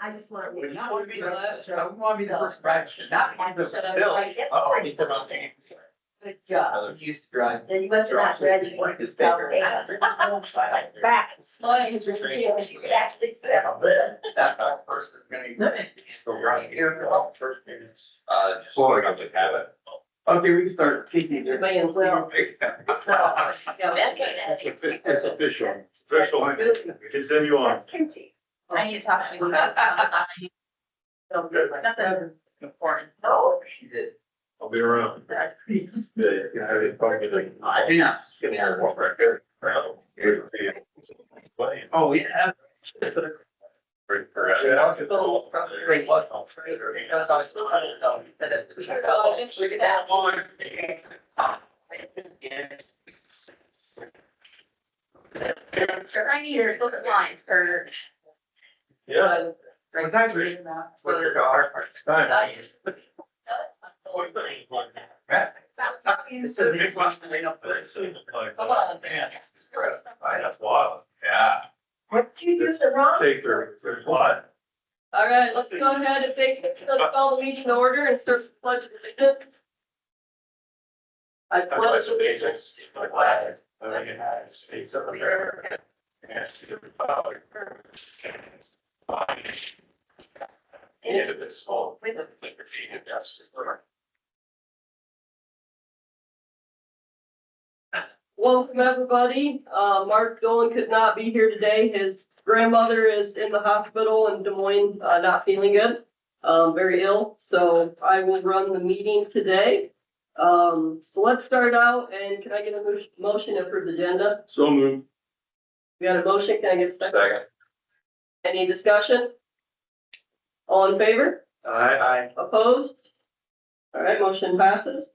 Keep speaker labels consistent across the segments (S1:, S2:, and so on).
S1: I just want to.
S2: We just want to be the, uh, we want to be the first batch, not be the first bill.
S1: Oh,
S2: he put on there.
S1: Good job.
S2: Others used to drive.
S1: Then you must have not read.
S2: One is bigger.
S1: Back.
S3: Mine is
S1: Yeah, she could actually spell it.
S2: That back person's gonna. So right here, the wrong first minutes. Uh, just.
S4: Well, I got to have it.
S2: Okay, we can start kicking there.
S3: Man's
S1: Well, no.
S3: Yeah, that's good.
S1: That's
S4: offi- it's official. Official, continue on.
S1: That's kimchi.
S3: I need to talk to you about.
S1: So,
S4: Good.
S3: That's a- important.
S1: No.
S2: She did.
S4: I'll be around.
S1: that's pretty.
S4: Yeah, you can have it, probably like-
S2: I do not. Give me that one right there.
S4: Playing.
S2: Oh, yeah.
S4: Great for us.
S2: Yeah, I was a little, something great was on Twitter, because I was still, I don't know, that it's.
S3: Oh, just look at that
S2: one.
S3: I need your look at lines, Kurt.
S4: Yeah.
S2: Was that great? With your daughter.
S4: Time.
S2: This is a big one, I know.
S3: Come on.
S2: Man.
S4: That's wild. Yeah.
S1: What did you do so wrong?
S4: Take their, their lot.
S3: All right, let's go ahead and take, let's call the meeting to order and start the pledge of allegiance. I pledge allegiance to the flag
S4: Of the United States of America. And to the Republic. for which it stands, one nation, under God, indivisible, with liberty and justice for all.
S3: Welcome, everybody. Uh, Mark Dolan could not be here today. His grandmother is in the hospital in Des Moines, uh, not feeling good, um, very ill. So I will run the meeting today. Um, so let's start out and can I get a mo- motion to approve the agenda?
S4: So moved.
S3: We got a motion. Can I get a second?
S4: Second.
S3: Any discussion? All in favor?
S4: Aye.
S3: Opposed? All right, motion passes.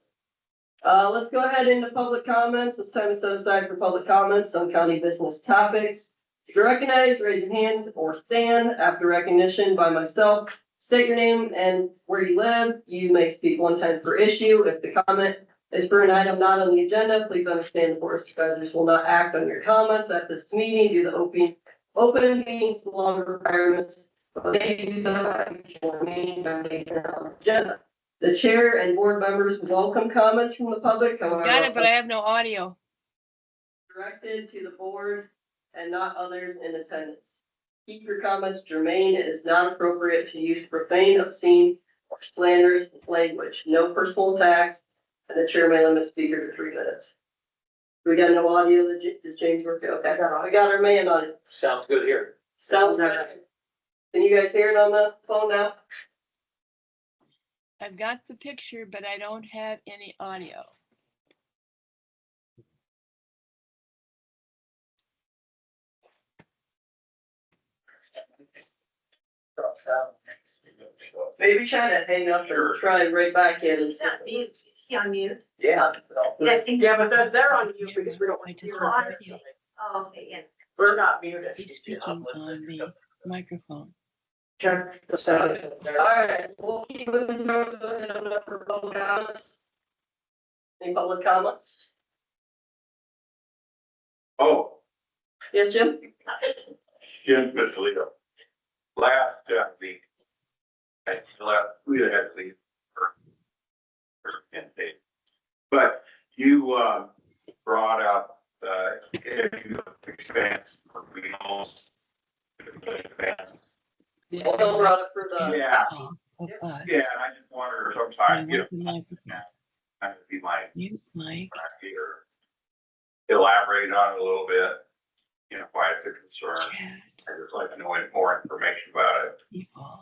S3: Uh, let's go ahead into public comments. It's time to set aside for public comments on county business topics. If you're recognized, raise your hand or stand after recognition by myself. State your name and where you live. You may speak one time per issue. If the comment is for an item not on the agenda, please understand the board of supervisors will not act on your comments at this meeting due to open, open meetings law requirements the chair and board members welcome comments from the public.
S5: Got it, but I have no audio.
S3: Directed to the board and not others in attendance. Keep your comments germane. It is not appropriate to use profane, obscene, or slanderous language. No personal attacks. And the chair may limit speaker to three minutes. We got no audio. Is James working? Okay, we got our man on it.
S2: Sounds good here.
S3: Sounds good. Can you guys hear it on the phone now?
S5: I've got the picture, but I don't have any audio.
S3: Maybe try to hang up or try right back in. and
S1: She's not mute. Is she on mute?
S2: Yeah.
S6: Yeah, but they're, they're on mute because we don't
S5: I
S6: want to
S5: just
S6: hear
S5: want
S6: it.
S5: to hear
S1: Oh, okay, yeah.
S6: We're not muted.
S5: He's speaking on the microphone.
S6: Check the sound.
S2: Um,
S3: Alright, we'll keep moving forward and open up for public comments. Any public comments?
S4: Oh,
S3: Yes, Jim?
S4: Jim Vitaledo. Last, uh, the, at last, we had to leave for, for ten days. But you, uh, brought up, uh, if you expand for renals.
S5: The
S3: Bill
S5: audio
S3: brought it for the,
S4: Yeah,
S5: Of us.
S4: yeah, and I just wonder
S5: I
S4: sometimes, you know,
S5: want the microphone.
S4: kind of be my
S5: Mute mic.
S4: idea or elaborate on it a little bit. You know, why it's a concern.
S5: Chat.
S4: I just like to know more information about it,
S5: People.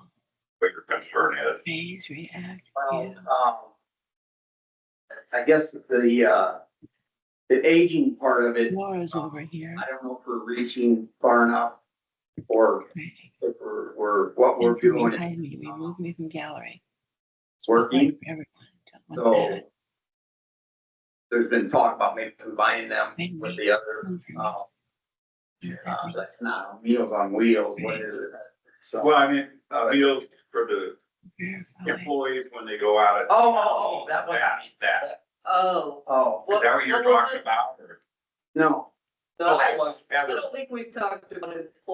S4: what your concern is.
S5: Phase react.
S2: Well, um, I guess the, uh, the aging part of it,
S5: Laura's over here.
S2: I don't know if we're reaching far enough or
S5: Right.
S2: if we're, we're, what we're
S5: And from
S2: doing
S5: Behind me,
S2: is
S5: remove me from gallery.
S2: it's working.
S5: For everyone. Don't want
S2: So
S4: Oh.
S5: that.
S2: there's been talk about maybe combining them with the other,
S5: Remove from
S2: um, uh,
S5: everything.
S2: that's not Meals on Wheels, what is it? So, oh,
S4: Well, I mean, uh, meals for the
S5: Verify.
S4: employees when they go out. at-
S2: Oh, oh, oh, that wasn't
S4: That,
S2: me.
S4: that.
S3: oh,
S2: oh,
S4: Is that what you're
S3: What- what was
S4: talking
S3: it?
S4: about? or-
S2: no.
S3: no,
S2: that
S3: I
S4: Oh,
S2: wasn't-
S3: I don't think we've talked about it before.